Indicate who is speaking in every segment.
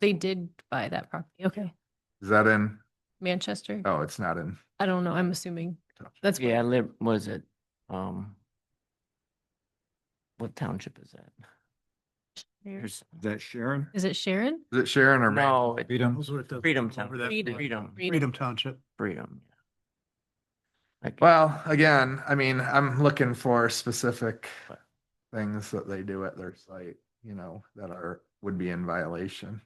Speaker 1: They did buy that property. Okay.
Speaker 2: Is that in?
Speaker 1: Manchester?
Speaker 2: Oh, it's not in.
Speaker 1: I don't know. I'm assuming that's.
Speaker 3: Yeah, I live, was it, um, what township is that?
Speaker 1: where-
Speaker 3: There's,
Speaker 4: that Sharon?
Speaker 1: Is it Sharon?
Speaker 2: Is it Sharon or? Man-
Speaker 3: no, it-
Speaker 4: Freedom.
Speaker 3: Freedom Town,
Speaker 4: Over that-
Speaker 1: Freedom.
Speaker 3: Freedom,
Speaker 1: Read it.
Speaker 4: Freedom Township.
Speaker 3: Freedom. yeah. Like,
Speaker 2: Well, again, I mean, I'm looking for specific
Speaker 3: But-
Speaker 2: things that they do at their site, you know, that are, would be in violation.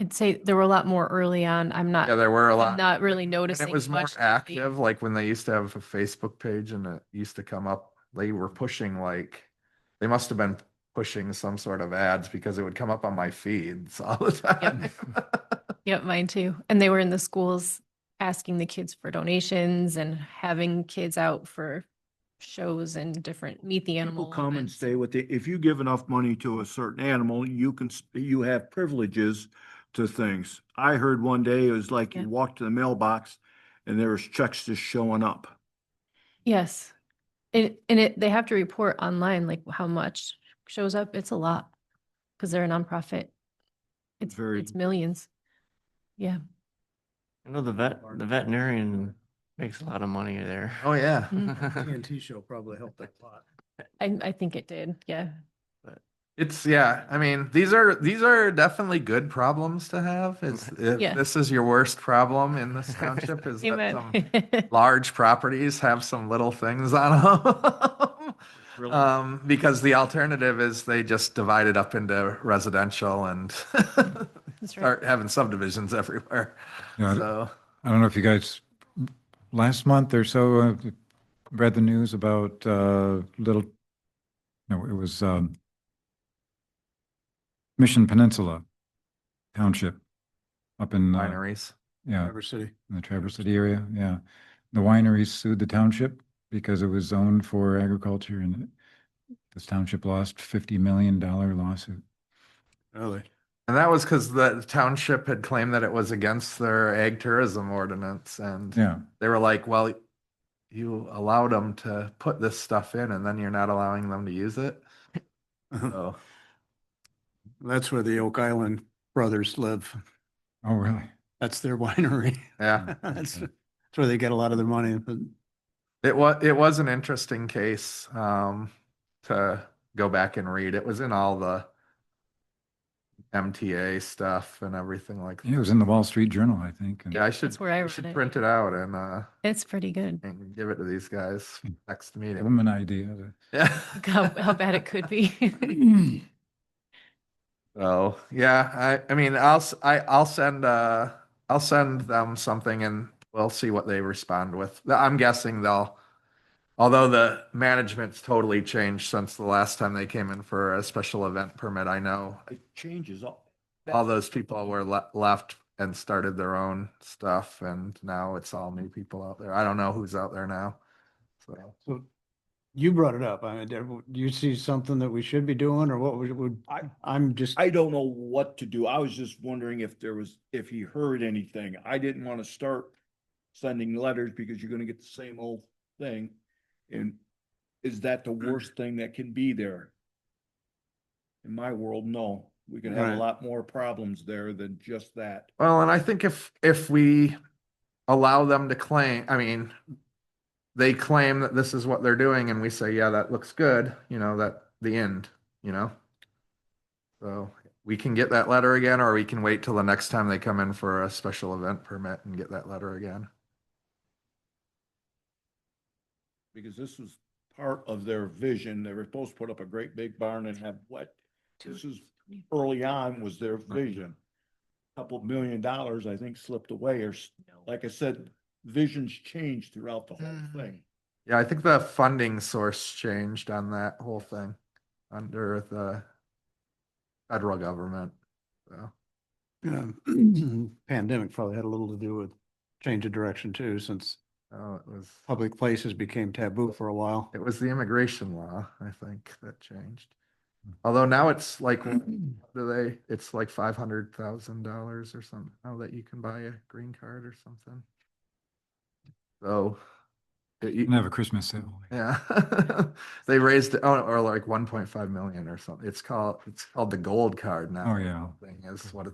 Speaker 1: I'd say there were a lot more early on. I'm
Speaker 2: Yeah,
Speaker 1: not,
Speaker 2: there were a
Speaker 1: I'm
Speaker 2: lot.
Speaker 1: not really
Speaker 2: And
Speaker 1: noticing.
Speaker 2: it was more
Speaker 1: much lately.
Speaker 2: active, like when they used to have a Facebook page and it used to come up, they were pushing like, they must have been pushing some sort of ads because it would come up on my feeds all the time.
Speaker 1: Yep, mine too. And they were in the schools asking the kids for donations and having kids out for shows and different meet the
Speaker 4: People
Speaker 1: animal.
Speaker 4: come and
Speaker 1: events.
Speaker 4: stay with the, if you give enough money to a certain animal, you can, s- you have privileges to things. I heard one day it was like
Speaker 1: Yeah.
Speaker 4: you walked to the mailbox and there was checks just showing up.
Speaker 1: Yes. It, and it, they have to report online, like how much shows up. It's a lot. Cause they're a nonprofit. It's,
Speaker 4: Very-
Speaker 1: it's millions. Yeah.
Speaker 3: I know the vet, the veterinarian makes a lot of money there.
Speaker 2: Oh, yeah.
Speaker 4: TNT show probably helped a lot.
Speaker 1: I, I think it did. Yeah.
Speaker 2: It's, yeah, I mean, these are, these are definitely good problems to have. It's,
Speaker 1: Mm-hmm. Yeah.
Speaker 2: if this is your worst problem in this township is that some
Speaker 1: Amen.
Speaker 2: large properties have some little things on them.
Speaker 4: Uh,
Speaker 2: Um, because the alternative is they just divide it up into residential and
Speaker 1: That's right.
Speaker 2: start having subdivisions everywhere.
Speaker 5: Yeah,
Speaker 2: So,
Speaker 5: I don't know if you guys, last month or so, uh, read the news about uh, Little, no, it was um, Mission Peninsula Township up in, uh,
Speaker 2: wineries.
Speaker 5: yeah,
Speaker 4: City.
Speaker 5: in the Traverse City area, yeah. The wineries sued the township because it was zoned for agriculture and this township lost $50 million lawsuit.
Speaker 4: Really?
Speaker 2: And that was because the township had claimed that it was against their ag tourism ordinance and
Speaker 5: Yeah,
Speaker 2: they were like, well, you allowed them to put this stuff in and then you're not allowing them to use it. So,
Speaker 6: Uh-huh. That's where the Oak Island brothers live.
Speaker 5: oh, really?
Speaker 6: That's their winery.
Speaker 2: yeah.
Speaker 6: That's that's where they get a lot of their money. But
Speaker 2: It was it was an interesting case um, to go back and read. It was in all the MTA stuff and everything like
Speaker 5: Yeah, it was in the Wall Street Journal, I think. and-
Speaker 2: Yeah, I should
Speaker 1: That's where I read
Speaker 2: should
Speaker 1: it.
Speaker 2: print it out and uh,
Speaker 1: It's pretty good.
Speaker 2: and give it to these guys next
Speaker 5: Give
Speaker 2: meeting.
Speaker 5: them an idea. to-
Speaker 2: Yeah.
Speaker 1: How, how bad it could be.
Speaker 2: So yeah, I I mean I'll s- I will send uh I'll send them something and we'll see what they respond with. I'm guessing they'll although the management's totally changed since the last time they came in for a special event permit, I know
Speaker 4: It changes all.
Speaker 2: all those people were le- left and started their own stuff and now it's all new people out there. I don't know who's out there now. So
Speaker 6: so you brought it up. I mean, do you see something that we should be doing or what would- would,
Speaker 4: I-
Speaker 6: I'm just,
Speaker 4: I don't know what to do. I was just wondering if there was, if he heard anything. I didn't want to start sending letters because you're gonna get the same old thing. And is that the worst thing that can be there? In my world, no. We can have
Speaker 6: Right.
Speaker 4: a lot more problems there than just that.
Speaker 2: Well, and I think if, if we allow them to claim, I mean, they claim that this is what they're doing and we say, yeah, that looks good, you know, that the end, you know? So we can get that letter again, or we can wait till the next time they come in for a special event permit and get that letter again.
Speaker 4: because this was part of their vision. They were supposed to put up a great big barn and have what? This is early on was their vision. Couple million dollars, I think, slipped away or, s- like I said, visions changed throughout the whole
Speaker 2: Mm.
Speaker 4: thing.
Speaker 2: Yeah, I think the funding source changed on that whole thing under the federal government. So,
Speaker 6: you know, pandemic probably had a little to do with change of direction too, since
Speaker 2: oh, it was,
Speaker 6: public places became taboo for a while.
Speaker 2: it was the immigration law, I think, that changed. Although now it's like, what do they, it's like five hundred thousand dollars or something, now that you can buy a green card or something. So. it- you-
Speaker 5: And have a Christmas sale.
Speaker 2: Yeah. They raised, it- oh, or like one point five million or something. It's called, it's called the gold card now.
Speaker 5: Oh, yeah.
Speaker 2: Thing is what